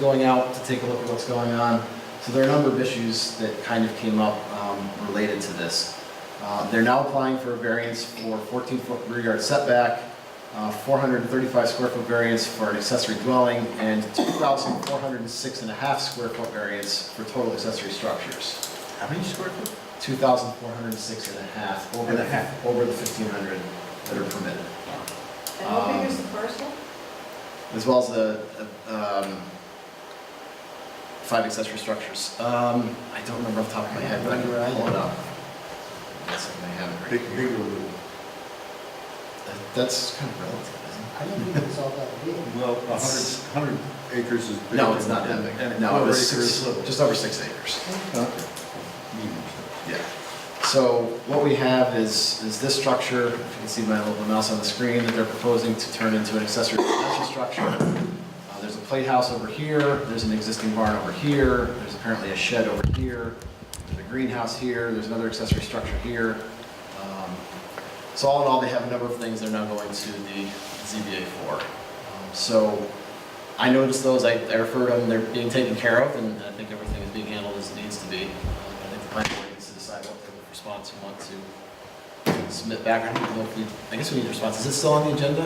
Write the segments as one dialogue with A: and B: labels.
A: going out to take a look at what's going on. So there are a number of issues that kind of came up um, related to this. Uh, They're now applying for a variance for 14-foot rear yard setback, uh, 435 square foot variance for an accessory dwelling, and 2,406 and a half square foot variance for total accessory structures.
B: How many square foot?
A: 2,406 and a half over
B: And a
A: the,
B: half.
A: over the 1,500 that are permitted.
C: And how
A: Um,
C: big is the parcel?
A: as well as the, uh, um, five accessory structures. Um, I don't remember off the top of my head, but I can pull it up. Yes, I may have it right
B: Big,
A: here.
B: big or little?
A: That- That's kind of relative, isn't
D: I didn't think it was all that big.
B: Well, a
A: It's-
B: hundred, hundred acres is
A: it?
B: big.
A: No, it's not that
B: and- and a
A: big. No, it
B: quarter
A: was
B: acre is
A: six,
B: little.
A: just over six acres.
B: Okay. Medium size.
A: Yeah. So what we have is, is this structure, if you can see my little mouse on the screen, that they're proposing to turn into an accessory residential structure. Uh, There's a playhouse over here, there's an existing barn over here, there's apparently a shed over here, there's a greenhouse here, there's another accessory structure here. Um, So all in all, they have a number of things they're now going to the ZBA for. Um, So I noticed those, I I referred them, they're being taken care of, and I think everything is being handled as it needs to be. Um, I think the planning board needs to decide what kind of response we want to submit back. I don't know if we, I guess we need a response. Is it still on the agenda?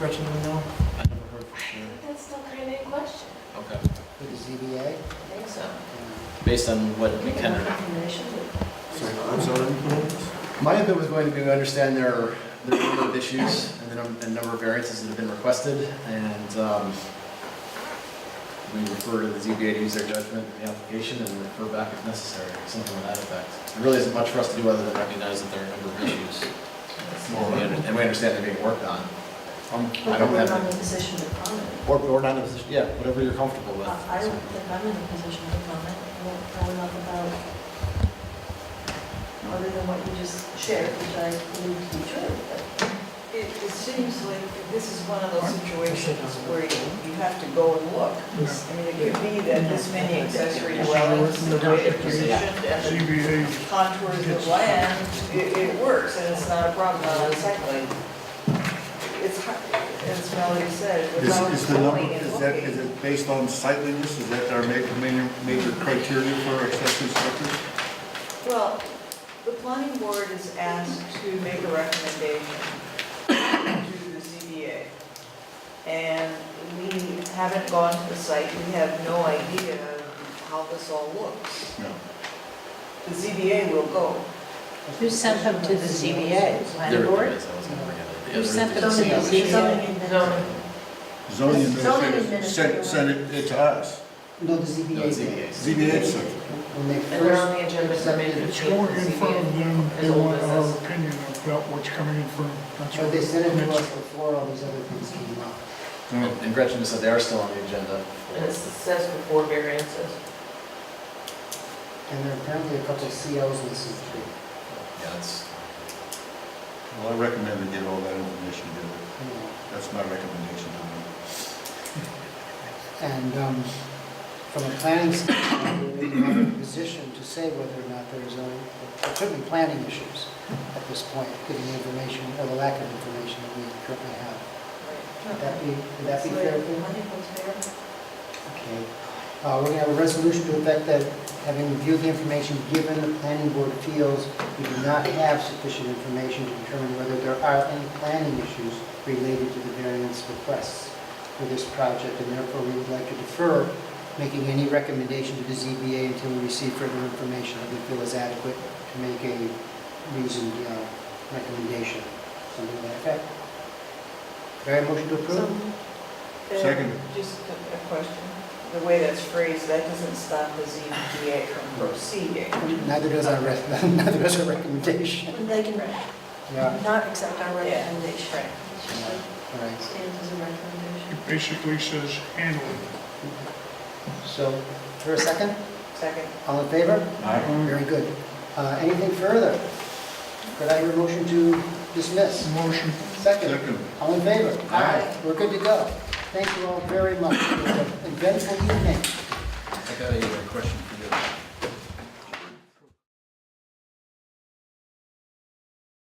A: Gretchen, do we know? I never heard for sure.
C: That's still kind of a question.
A: Okay,
D: For the ZBA,
C: I think so.
D: uh,
A: based on what we
C: We
A: can.
C: can have information.
B: So, I'm sorry, you put on this?
A: My input was going to be, we understand there are, there are a number of issues and the num- and number of variances that have been requested, and um, we refer to the ZBA to use their judgment in the application and refer back if necessary, something to that effect. There really isn't much for us to do other than recognize that there are a number of issues, and we under- and we understand they're being worked on. Um, I don't
C: But we're
A: have,
C: not in a
A: any-
C: position to comment.
A: or, or not in a position, yeah, whatever you're comfortable with.
C: I I don't think I'm in a position to comment. I don't know enough about, other than what you just shared, which I believe to be true. but-
E: It, it seems like this is one of those situations where you you have to go and look. I mean, it could be that this many accessory dwellings, the way they're positioned and the contours of land, it, it works and it's not a problem on a site plan. It's, hard- as Melody said,
B: Is,
E: without
B: is the number,
E: going and
B: is that, is
E: looking.
B: it based on sightliness? Is that our major, major, major criteria for accessory structures?
E: Well, the planning board is asked to make a recommendation to the ZBA. And we haven't gone to the site, we have no idea how this all looks.
B: No.
E: The ZBA will go.
F: Who sent them to the ZBA?
A: There-
F: Planning
A: there
F: board?
A: is, I was gonna bring it up.
F: You sent them
A: There's a
F: to the
A: few issues.
F: ZBA?
B: Zoning
C: Zoning
B: administrator sent,
C: administrator.
B: sent it it to us.
D: no, the
A: No,
D: ZBA.
A: it's ZBA.
D: did.
B: ZBA sent it.
D: When they
G: And they're on
D: first,
G: the agenda, so maybe the
H: It's more in
G: changes
H: front of
G: needed.
H: them,
G: as
H: they
G: old
H: want our
G: business.
H: opinion about what's coming in front of them. That's
D: or they
H: what-
D: sent it to us before all these other things came up.
B: No.
A: And Gretchen just said they are still on the agenda.
G: And it says before variances.
D: And there are apparently a couple of COs missing too.
A: Yeah, that's,
B: Well, I recommend they get all that information together.
D: you know.
B: That's my recommendation to them.
D: And um, from a planning standpoint, we're not in a position to say whether or not there's zoning, there could be planning issues at this point, given the information, or the lack of information that we currently have. Would that be, would that be fair? Okay. Uh, We're going to have a resolution to effect that, having reviewed the information given, the planning board feels we do not have sufficient information to determine whether there are any planning issues related to the variance requests for this project, and therefore we would like to defer making any recommendation to the ZBA until we receive further information that we feel is adequate to make a reasoned uh, recommendation, something to that effect. Do I have a motion to approve?
E: Uh,
B: Second.
E: Just a a question. The way that's phrased, that doesn't stop the ZBA from proceeding.
D: Neither does our, re- neither does our recommendation.
C: When they can rec-
D: Yeah,
C: not accept our recommendation.
E: Right.
C: It's just like
D: all right.
C: Stands as a recommendation.
H: It basically says handle it.
D: So, for a second,
E: Second.
D: all in favor? Very good. Uh, Anything further? Could I hear a motion to dismiss?
H: Motion.
D: Second,
B: Second.
D: all in favor?
B: Aye.
D: We're good to go. Thank you all very much. It was an Eventful evening.
A: I got a uh, question for